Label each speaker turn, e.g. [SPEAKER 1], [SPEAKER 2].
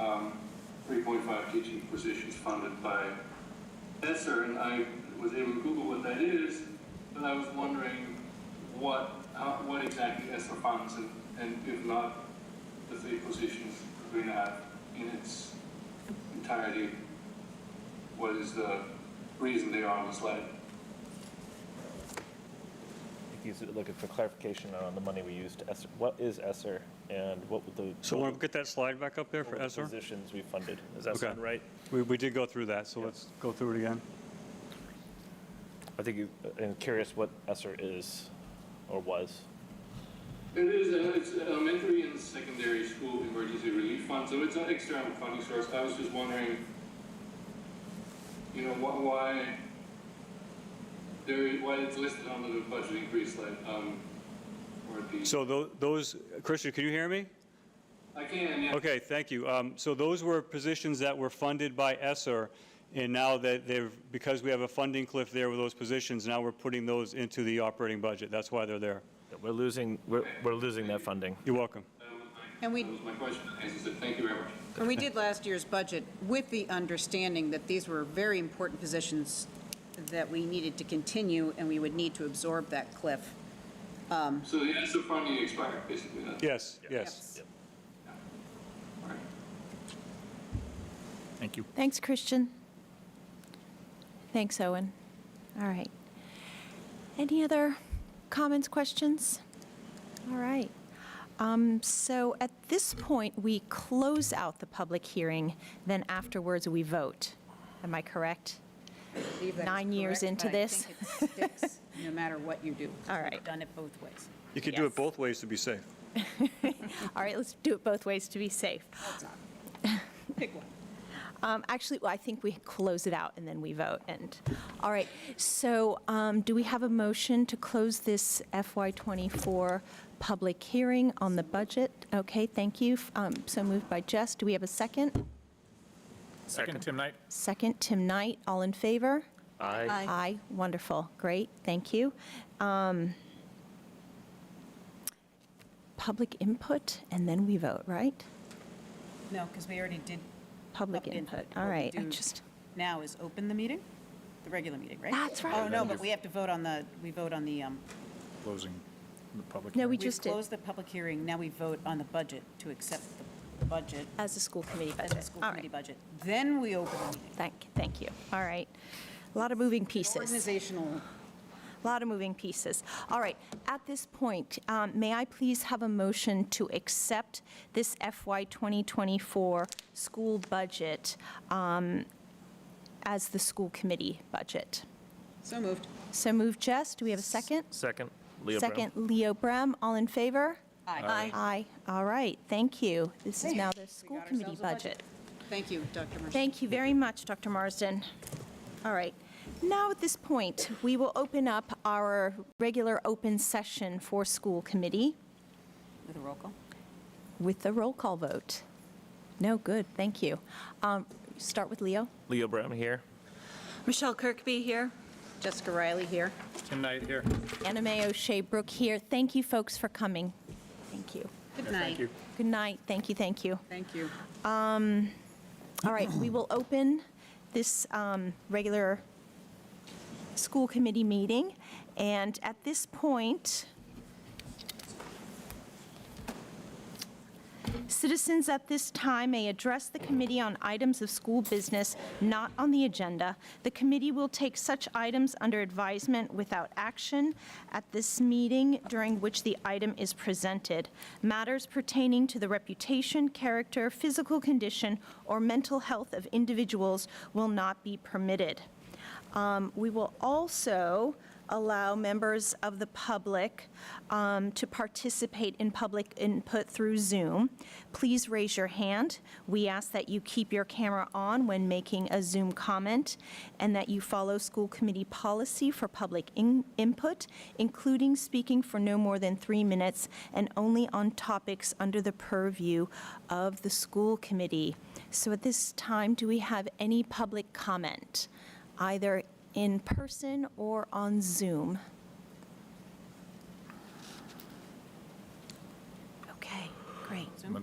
[SPEAKER 1] um, three point five teaching positions funded by ESSER, and I was able to Google what that is, but I was wondering what, how, what exactly ESSER funds, and, and if not, the three positions we have in its entirety, what is the reason they are on the slide?
[SPEAKER 2] He's looking for clarification on the money we used to ESSER. What is ESSER and what were the?
[SPEAKER 3] So want to get that slide back up there
[SPEAKER 2] what were
[SPEAKER 3] for
[SPEAKER 2] the
[SPEAKER 3] ESER?
[SPEAKER 2] Positions we funded. Does that
[SPEAKER 3] Okay.
[SPEAKER 2] sound right?
[SPEAKER 3] We, we did go through that, so let's go through it again.
[SPEAKER 2] I think you, I'm curious what ESSER is or was.
[SPEAKER 1] It is, uh, it's elementary and secondary school emergency relief fund, so it's an external funding source. I was just wondering, you know, wh- why there, why it's listed under the budget increase slide, um, or the.
[SPEAKER 3] So tho- those, Christian, can you hear me?
[SPEAKER 1] I can, yeah.
[SPEAKER 3] Okay, thank you. Um, So those were positions that were funded by ESER, and now that they've, because we have a funding cliff there with those positions, now we're putting those into the operating budget. That's why they're there.
[SPEAKER 2] We're losing, we're, we're losing that funding.
[SPEAKER 3] You're welcome.
[SPEAKER 1] That was my-
[SPEAKER 4] And we-
[SPEAKER 1] That was my question. I said, thank you very much.
[SPEAKER 4] And we did last year's budget with the understanding that these were very important positions that we needed to continue, and we would need to absorb that cliff.
[SPEAKER 1] So the ESSER funding expired, basically, that's.
[SPEAKER 3] Yes, yes.
[SPEAKER 1] All right.
[SPEAKER 5] Thank you.
[SPEAKER 6] Thanks, Christian. Thanks, Owen. All right. Any other comments, questions? All right. Um, So at this point, we close out the public hearing, then afterwards, we vote. Am I correct?
[SPEAKER 4] I believe that is
[SPEAKER 6] Nine years
[SPEAKER 4] correct,
[SPEAKER 6] into
[SPEAKER 4] but I
[SPEAKER 6] this.
[SPEAKER 4] think it sticks, no matter what you do.
[SPEAKER 6] All right.
[SPEAKER 4] We've done it both ways.
[SPEAKER 3] You could do
[SPEAKER 6] Yes.
[SPEAKER 3] it both ways to be safe.
[SPEAKER 6] All right, let's do it both ways to be safe.
[SPEAKER 4] Pick one.
[SPEAKER 6] Um, Actually, well, I think we close it out and then we vote. And, all right, so um, do we have a motion to close this FY24 public hearing on the budget? Okay, thank you. Um, So moved by Jess. Do we have a second?
[SPEAKER 5] Second, Tim Knight.
[SPEAKER 6] Second, Tim Knight. All in favor?
[SPEAKER 2] Aye.
[SPEAKER 6] Aye. Wonderful. Great, thank you. Um, Public input, and then we vote, right?
[SPEAKER 4] No, because we already did.
[SPEAKER 6] Public input. All
[SPEAKER 4] What we
[SPEAKER 6] right, I
[SPEAKER 4] do
[SPEAKER 6] just,
[SPEAKER 4] Now is open the meeting, the regular meeting, right?
[SPEAKER 6] That's right.
[SPEAKER 4] Oh, no, but we have to vote on the, we vote on the, um,
[SPEAKER 5] Closing the public.
[SPEAKER 6] no,
[SPEAKER 5] hearing.
[SPEAKER 6] we
[SPEAKER 4] we've
[SPEAKER 6] just did,
[SPEAKER 4] closed the public hearing, now we vote on the budget to accept the budget
[SPEAKER 6] as a school committee
[SPEAKER 4] as
[SPEAKER 6] budget.
[SPEAKER 4] a school
[SPEAKER 6] All
[SPEAKER 4] committee
[SPEAKER 6] right.
[SPEAKER 4] budget. Then we open the meeting.
[SPEAKER 6] Thank, thank you. All right. A lot of moving pieces,
[SPEAKER 4] Organizational.
[SPEAKER 6] a lot of moving pieces. All right, at this point, um, may I please have a motion to accept this FY 2024 school budget um, as the school committee budget?
[SPEAKER 4] So moved.
[SPEAKER 6] So move, Jess, do we have a second?
[SPEAKER 2] Second, Leo Brown.
[SPEAKER 6] Second, Leo Brem, all in favor?
[SPEAKER 4] Aye.
[SPEAKER 6] Aye, all right, thank you. This is
[SPEAKER 4] Hey,
[SPEAKER 6] now the
[SPEAKER 4] we
[SPEAKER 6] school
[SPEAKER 4] got
[SPEAKER 6] committee
[SPEAKER 4] ourselves a budget.
[SPEAKER 6] budget.
[SPEAKER 4] Thank you, Dr. Mercer.
[SPEAKER 6] Thank you very much, Dr. Marsden. All right. Now, at this point, we will open up our regular open session for school committee
[SPEAKER 4] With a roll call?
[SPEAKER 6] with a roll call vote. No, good, thank you. Um, Start with Leo.
[SPEAKER 2] Leo Brown here.
[SPEAKER 7] Michelle Kirkby here.
[SPEAKER 4] Jessica Riley here.
[SPEAKER 5] Tim Knight here.
[SPEAKER 6] Anna Mae O'Shea Brook here. Thank you, folks, for coming. Thank you.
[SPEAKER 4] Good
[SPEAKER 5] Thank
[SPEAKER 4] night.
[SPEAKER 5] you.
[SPEAKER 6] Good night, thank you, thank you.
[SPEAKER 4] Thank you.
[SPEAKER 6] All right, we will open this um, regular school committee meeting, and at this point, citizens at this time may address the committee on items of school business not on the agenda. The committee will take such items under advisement without action at this meeting during which the item is presented. Matters pertaining to the reputation, character, physical condition, or mental health of individuals will not be permitted. Um, We will also allow members of the public um, to participate in public input through Zoom. Please raise your hand. We ask that you keep your camera on when making a Zoom comment, and that you follow school committee policy for public in- input, including speaking for no more than three minutes and only on topics under the purview of the school committee. So at this time, do we have any public comment? either in person or on Zoom. Okay, great.